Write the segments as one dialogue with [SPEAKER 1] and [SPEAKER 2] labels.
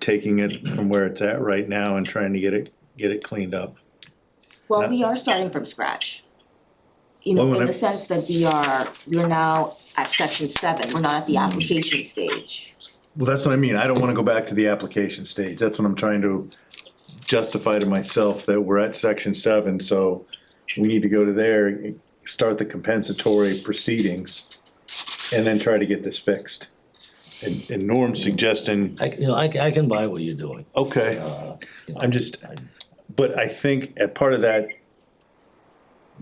[SPEAKER 1] taking it from where it's at right now and trying to get it, get it cleaned up.
[SPEAKER 2] Well, we are starting from scratch. You
[SPEAKER 1] Well,
[SPEAKER 2] know,
[SPEAKER 1] when
[SPEAKER 2] in
[SPEAKER 1] I-
[SPEAKER 2] the sense that we are, we're now at section seven, we're not at
[SPEAKER 1] Mm.
[SPEAKER 2] the application stage.
[SPEAKER 1] Well, that's what I mean, I don't wanna go back to the application stage, that's what I'm trying to justify to myself, that we're at section seven, so we need to go to there, start the compensatory proceedings, and then try to get this fixed. And, and Norm's suggesting,
[SPEAKER 3] I, you know, I, I can buy what you're doing.
[SPEAKER 1] okay,
[SPEAKER 3] Uh, you know,
[SPEAKER 1] I'm just,
[SPEAKER 3] I-
[SPEAKER 1] but I think at part of that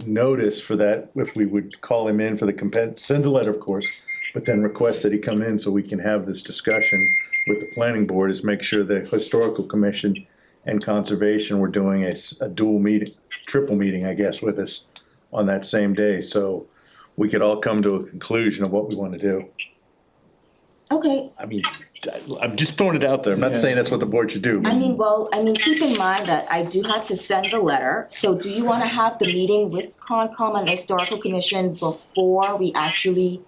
[SPEAKER 1] notice for that, if we would call him in for the compen, send a letter, of course, but then request that he come in so we can have this discussion with the planning board, is make sure the historical commission and conservation were doing a, s- a dual meeting, triple meeting, I guess, with us on that same day, so we could all come to a conclusion of what we wanna do.
[SPEAKER 2] Okay,
[SPEAKER 1] I mean, I- I'm just throwing it out there, I'm not saying that's what the board should do.
[SPEAKER 2] I mean, well, I mean, keep in mind that I do have to send the letter, so do you wanna have the meeting with Concom and the Historical Commission before we actually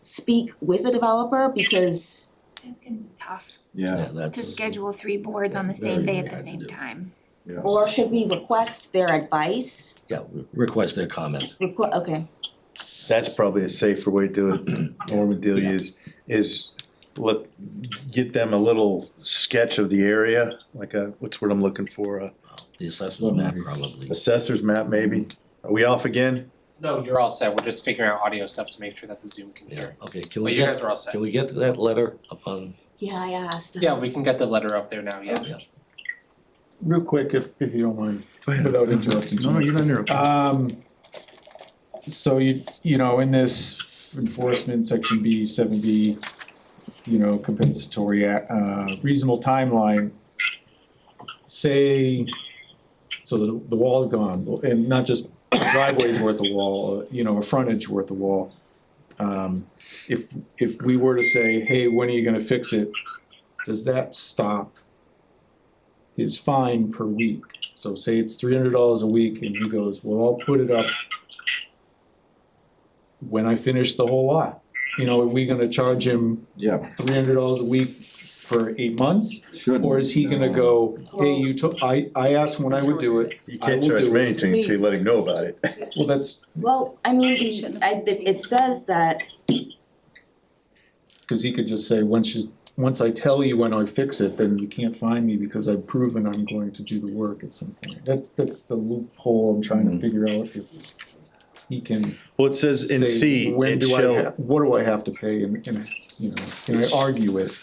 [SPEAKER 2] speak with the developer, because
[SPEAKER 4] It's gonna be tough
[SPEAKER 3] yeah,
[SPEAKER 4] to
[SPEAKER 3] that's-
[SPEAKER 4] schedule three boards on the same day at the same time.
[SPEAKER 2] or should we request their advice?
[SPEAKER 3] Yeah, re- request their comment.
[SPEAKER 2] Requ- okay,
[SPEAKER 1] that's probably a safer way to do it, Norman Delia is, is let, get them a little sketch of the area, like a, what's what I'm looking for, a
[SPEAKER 3] The assessment map probably.
[SPEAKER 1] assessor's map maybe? Are we off again?
[SPEAKER 5] No, you're all set, we're just figuring out audio stuff to make sure that the Zoom can
[SPEAKER 3] Yeah,
[SPEAKER 5] hear.
[SPEAKER 3] okay, can
[SPEAKER 5] But
[SPEAKER 3] we
[SPEAKER 5] you guys
[SPEAKER 3] get,
[SPEAKER 5] are all set.
[SPEAKER 3] can we get that letter upon,
[SPEAKER 2] yeah, I asked.
[SPEAKER 5] Yeah, we can get the letter up there now, yeah.
[SPEAKER 6] Real quick, if, if you don't mind,
[SPEAKER 1] Go ahead.
[SPEAKER 6] without interrupting too
[SPEAKER 1] No, no,
[SPEAKER 6] much.
[SPEAKER 1] you're not interrupting.
[SPEAKER 6] Um, so you, you know, in this enforcement, section B, seven B, you know, compensatory, uh, reasonable timeline, say, so the, the wall's gone, and not just a driveway's worth of wall, uh, you know, a frontage worth of wall. Um, if, if we were to say, hey, when are you gonna fix it, does that stop his fine per week? So say it's three hundred dollars a week and he goes, well, I'll put it up when I finish the whole lot. You know, are we gonna charge him
[SPEAKER 7] Yeah,
[SPEAKER 6] three hundred dollars a week for eight months?
[SPEAKER 7] should.
[SPEAKER 6] Or is he gonna go, hey,
[SPEAKER 2] Well-
[SPEAKER 6] you took, I, I asked when I would do it.
[SPEAKER 1] You
[SPEAKER 6] I
[SPEAKER 1] can't
[SPEAKER 6] will
[SPEAKER 1] charge
[SPEAKER 6] do
[SPEAKER 1] me
[SPEAKER 6] it.
[SPEAKER 1] anything until you let him know about it.
[SPEAKER 6] Well, that's,
[SPEAKER 2] Well, I mean, the, I, it says that
[SPEAKER 6] cause he could just say, once you, once I tell you when I fix it, then you can't find me because I've proven I'm going to do the work at some point. That's, that's the loophole I'm trying to figure out if he can.
[SPEAKER 1] Well, it says in
[SPEAKER 6] say,
[SPEAKER 1] C,
[SPEAKER 6] when
[SPEAKER 1] it
[SPEAKER 6] do I ha-
[SPEAKER 1] shall,
[SPEAKER 6] What do I have to pay and, and, you know, can I argue it,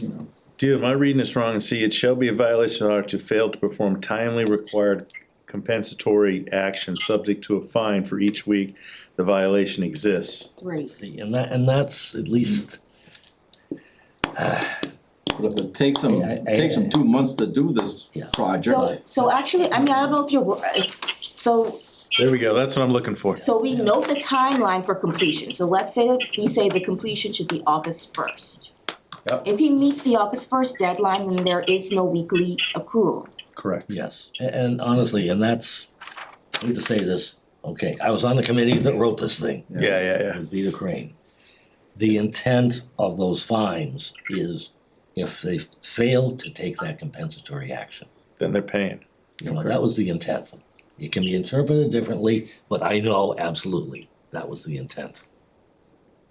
[SPEAKER 6] you know?
[SPEAKER 1] dude, am I reading this wrong? In C, it shall be a violation of order to fail to perform timely required compensatory action subject to a fine for each week the violation exists.
[SPEAKER 2] three.
[SPEAKER 3] see, and that, and that's at least,
[SPEAKER 7] But if it takes him,
[SPEAKER 3] I- I-
[SPEAKER 7] takes him two months to do this
[SPEAKER 3] Yeah.
[SPEAKER 2] So,
[SPEAKER 7] project,
[SPEAKER 2] so actually, I mean, I don't know if you're, wor- uh, so,
[SPEAKER 1] There we go, that's what I'm looking for.
[SPEAKER 2] so we note the timeline for completion, so let's say that we say the completion should be August first.
[SPEAKER 1] Yep.
[SPEAKER 2] If he meets the August first deadline, then there is no weekly accrual.
[SPEAKER 1] Correct.
[SPEAKER 3] yes, A- and honestly, and that's, I hate to say this, okay, I was on the committee that wrote this thing.
[SPEAKER 1] Yeah, yeah, yeah.
[SPEAKER 3] with Vita Crane. The intent of those fines is if they fail to take that compensatory action.
[SPEAKER 1] then they're paying.
[SPEAKER 3] You know, that was the intent. It can be interpreted differently, but I know absolutely that was the intent.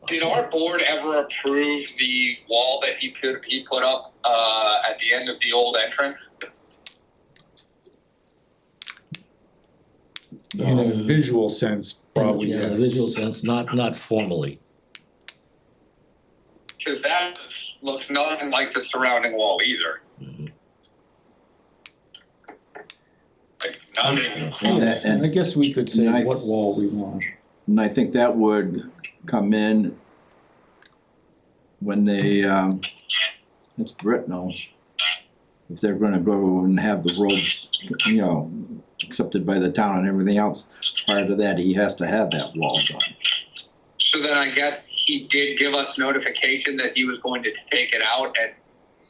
[SPEAKER 8] Did our board ever approve the wall that he put he put up uh, at the end of the old entrance?
[SPEAKER 6] In a visual sense, probably,
[SPEAKER 3] In
[SPEAKER 6] yes.
[SPEAKER 3] a Um, visual sense, not, not formally.
[SPEAKER 8] Because that looks nothing like the surrounding wall either.
[SPEAKER 3] Mhm.
[SPEAKER 8] Like not even
[SPEAKER 7] And-
[SPEAKER 8] close.
[SPEAKER 6] Yes, And I guess we could say
[SPEAKER 7] And I-
[SPEAKER 6] what wall we want.
[SPEAKER 7] and I think that would come in when they, um, it's Britnell. If they're gonna go and have the roads, you know, accepted by the town and everything else, prior to that, he has to have that wall done.
[SPEAKER 8] So then I guess he did give us notification that he was going to take it out, and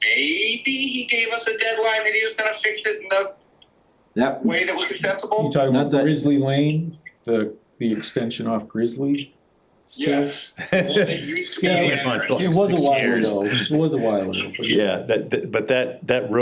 [SPEAKER 8] maybe he gave us a deadline that he was going to fix it in the
[SPEAKER 7] That,
[SPEAKER 8] way that was
[SPEAKER 6] You
[SPEAKER 8] acceptable.
[SPEAKER 6] talking
[SPEAKER 7] Not
[SPEAKER 6] about
[SPEAKER 7] that-
[SPEAKER 6] Grizzly Lane, the, the extension off Grizzly? still?
[SPEAKER 8] Yes. Well, they used to be
[SPEAKER 6] Yeah,
[SPEAKER 8] the
[SPEAKER 1] it was
[SPEAKER 8] average.
[SPEAKER 1] like
[SPEAKER 6] It was a
[SPEAKER 1] six
[SPEAKER 6] while
[SPEAKER 1] years.
[SPEAKER 6] ago, it was a while ago. but
[SPEAKER 1] Yeah, that, that- but that, that road